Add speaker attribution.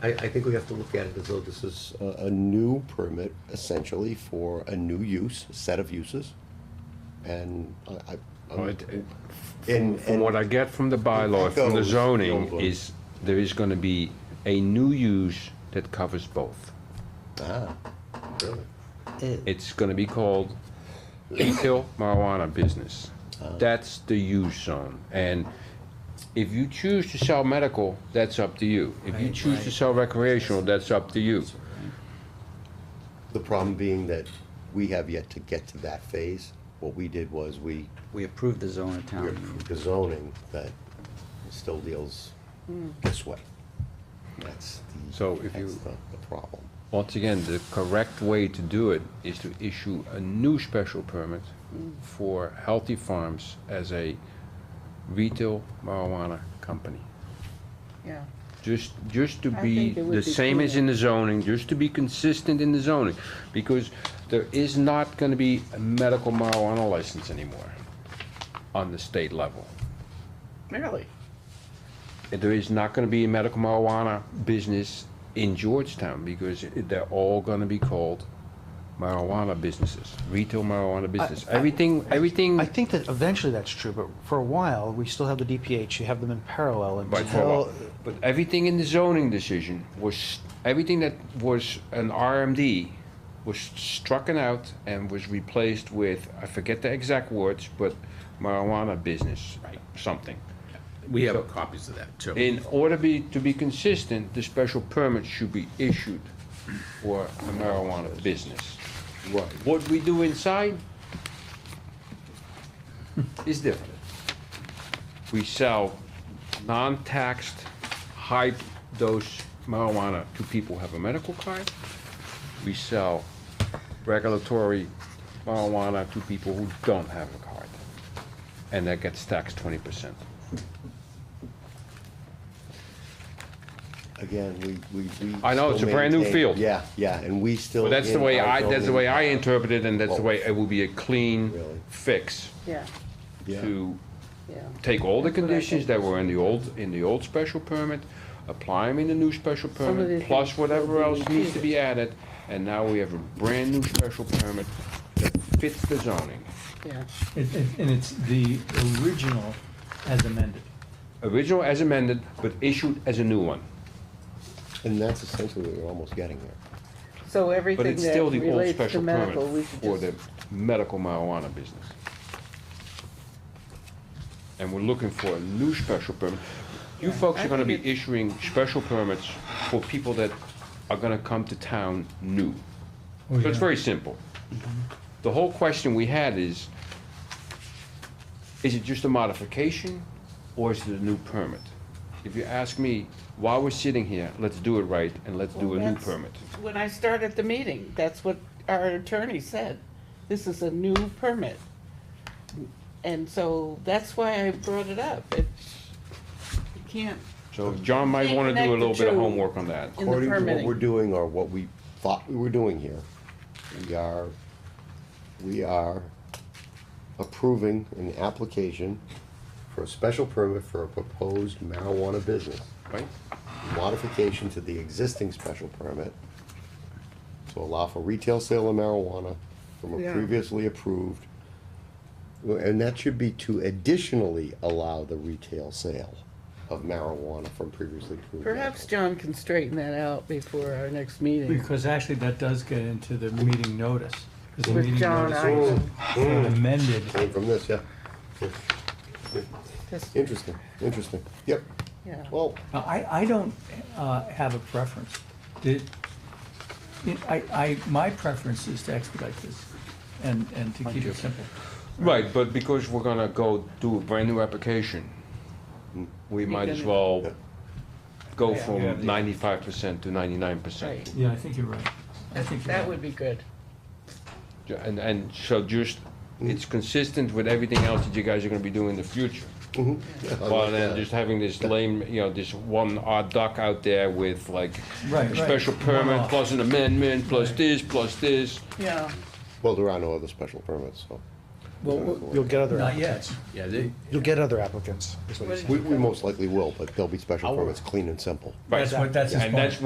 Speaker 1: I, I think we have to look at it as though this is
Speaker 2: a, a new permit essentially for a new use, set of uses. And I, I.
Speaker 3: Well, it- it-
Speaker 2: And,
Speaker 3: From what
Speaker 2: and,
Speaker 3: I get from the bylaw, from the
Speaker 2: echoes the old
Speaker 3: zoning,
Speaker 2: one.
Speaker 3: is there is gonna be a new use that covers both.
Speaker 2: ah, really?
Speaker 3: It's gonna be called retail marijuana business. That's the use zone. And if you choose to sell medical, that's up to you. If you
Speaker 4: Right,
Speaker 3: choose to
Speaker 4: right.
Speaker 3: sell recreational, that's up to you.
Speaker 2: The problem being that we have yet to get to that phase. What we did was we
Speaker 4: We approved the zone at town
Speaker 2: we
Speaker 4: meeting.
Speaker 2: approved the zoning that still deals this way. That's the.
Speaker 3: So if you-
Speaker 2: that's the- The problem.
Speaker 3: Once again, the correct way to do it is to issue a new special permit for Healthy Farms as a retail marijuana company.
Speaker 5: Yeah.
Speaker 3: Just, just to
Speaker 5: I
Speaker 3: be
Speaker 5: think it would
Speaker 3: the
Speaker 5: be
Speaker 3: same as
Speaker 5: prudent.
Speaker 3: in the zoning, just to be consistent in the zoning, because there is not gonna be a medical marijuana license anymore on the state level.
Speaker 5: Really?
Speaker 3: There is not gonna be a medical marijuana business in Georgetown, because it- they're all gonna be called marijuana businesses, retail marijuana business. Everything, everything,
Speaker 6: I think that eventually that's true, but for a while, we still have the DPH, you have them in parallel
Speaker 3: Right, for a
Speaker 6: until,
Speaker 3: while. but everything in the zoning decision was, everything that was an RMD was struck and out and was replaced with, I forget the exact words, but marijuana business, something.
Speaker 7: We have copies of that too.
Speaker 3: In order be, to be consistent, the special permit should be issued for a marijuana business. What, what we do inside is different. We sell non-taxed, high-dose marijuana to people who have a medical card. We sell regulatory marijuana to people who don't have a card, and that gets taxed twenty percent.
Speaker 2: Again, we, we, we.
Speaker 3: I
Speaker 2: still
Speaker 3: know, it's a brand new
Speaker 2: maintain-
Speaker 3: field.
Speaker 2: Yeah, yeah, and we still.
Speaker 3: But that's the
Speaker 2: in
Speaker 3: way
Speaker 2: our
Speaker 3: I, that's the
Speaker 2: zoning-
Speaker 3: way I interpret it, and that's the way it will be a
Speaker 2: Really?
Speaker 3: clean fix
Speaker 5: Yeah,
Speaker 2: Yeah.
Speaker 3: to
Speaker 5: yeah.
Speaker 3: take all the
Speaker 5: That's what I
Speaker 3: conditions
Speaker 5: think.
Speaker 3: that were in the old, in the old special permit, apply them in the new special
Speaker 5: of
Speaker 3: permit,
Speaker 5: the
Speaker 3: plus
Speaker 5: things will
Speaker 3: whatever
Speaker 5: be
Speaker 3: else needs to
Speaker 5: repeated.
Speaker 3: be added, and now we have a brand-new special permit that fits the zoning.
Speaker 5: Yeah.
Speaker 8: It- it- And it's the original as amended.
Speaker 3: Original as amended, but issued as a new one.
Speaker 2: And that's essentially what we're almost getting there.
Speaker 5: So
Speaker 3: But
Speaker 5: everything
Speaker 3: it's
Speaker 5: that
Speaker 3: still the old
Speaker 5: relates to
Speaker 3: special
Speaker 5: medical, we
Speaker 3: permit
Speaker 5: should
Speaker 3: for the
Speaker 5: just,
Speaker 3: medical marijuana business. And we're looking for a new special permit. You folks
Speaker 5: I
Speaker 3: are gonna be
Speaker 5: think
Speaker 3: issuing special permits for people that are gonna come to town new.
Speaker 8: Oh,
Speaker 3: So it's
Speaker 8: yeah.
Speaker 3: very simple. The whole question we had is, is it just a modification or is it a new permit? If you ask me, while we're sitting here, let's do it right and let's do
Speaker 5: Well,
Speaker 3: a new
Speaker 5: that's-
Speaker 3: permit.
Speaker 5: when I started the meeting, that's what our attorney said. This is a new permit. And so that's why I brought it up. It's, you can't,
Speaker 3: So John might
Speaker 5: Can't
Speaker 3: wanna do
Speaker 5: connect
Speaker 3: a
Speaker 5: the
Speaker 3: little bit of
Speaker 5: two.
Speaker 3: homework on that.
Speaker 5: in the
Speaker 2: According to what we're
Speaker 5: permitting.
Speaker 2: doing or what we thought we were doing here, we are, we are approving an application for a special permit for a proposed marijuana business.
Speaker 3: Right?
Speaker 2: Modification to the existing special permit to allow for retail sale of marijuana from a
Speaker 5: Yeah.
Speaker 2: previously approved. And that should be to additionally allow the retail sale of marijuana from previously approved.
Speaker 5: Perhaps John can straighten that out before our next meeting.
Speaker 8: Because actually, that does get into the meeting notice. 'cause the
Speaker 5: With
Speaker 8: meeting
Speaker 5: John
Speaker 8: notice
Speaker 5: Ivan.
Speaker 8: was an Amended.
Speaker 2: Came from this, yeah.
Speaker 5: Just-
Speaker 2: Interesting, interesting. Yep.
Speaker 5: Yeah.
Speaker 2: Well,
Speaker 8: Now, I, I don't uh, have a preference. Did, I, I, my preference is to expedite this and, and to keep it simple.
Speaker 3: Right, but because we're gonna go do a brand new application, we might as
Speaker 5: gonna-
Speaker 2: Yeah.
Speaker 3: well go
Speaker 5: Yeah.
Speaker 8: Yeah,
Speaker 3: from
Speaker 8: the-
Speaker 3: ninety-five percent to ninety-nine
Speaker 5: Right.
Speaker 3: percent.
Speaker 8: Yeah, I think you're right. I think you're
Speaker 5: That
Speaker 8: right.
Speaker 5: would be good.
Speaker 3: And, and so just, it's consistent with everything else that you guys are gonna be doing in the future.
Speaker 2: uh,
Speaker 8: Oh,
Speaker 3: Rather than just having this lame, you know, this one odd duck out there with like,
Speaker 8: Right, right.
Speaker 3: special permit,
Speaker 8: One-off.
Speaker 3: plus an amendment, plus this, plus this.
Speaker 5: Yeah.
Speaker 2: well, there are no other special permits, so
Speaker 6: well, you'll get other,
Speaker 8: Not
Speaker 6: app-
Speaker 8: yet.
Speaker 7: Yeah, they,
Speaker 6: you'll get other applicants, is what he's saying.
Speaker 2: we, we most likely will, but they'll be special permits, clean and simple.
Speaker 3: Right.
Speaker 8: That's what, that's his
Speaker 3: And that's
Speaker 8: point.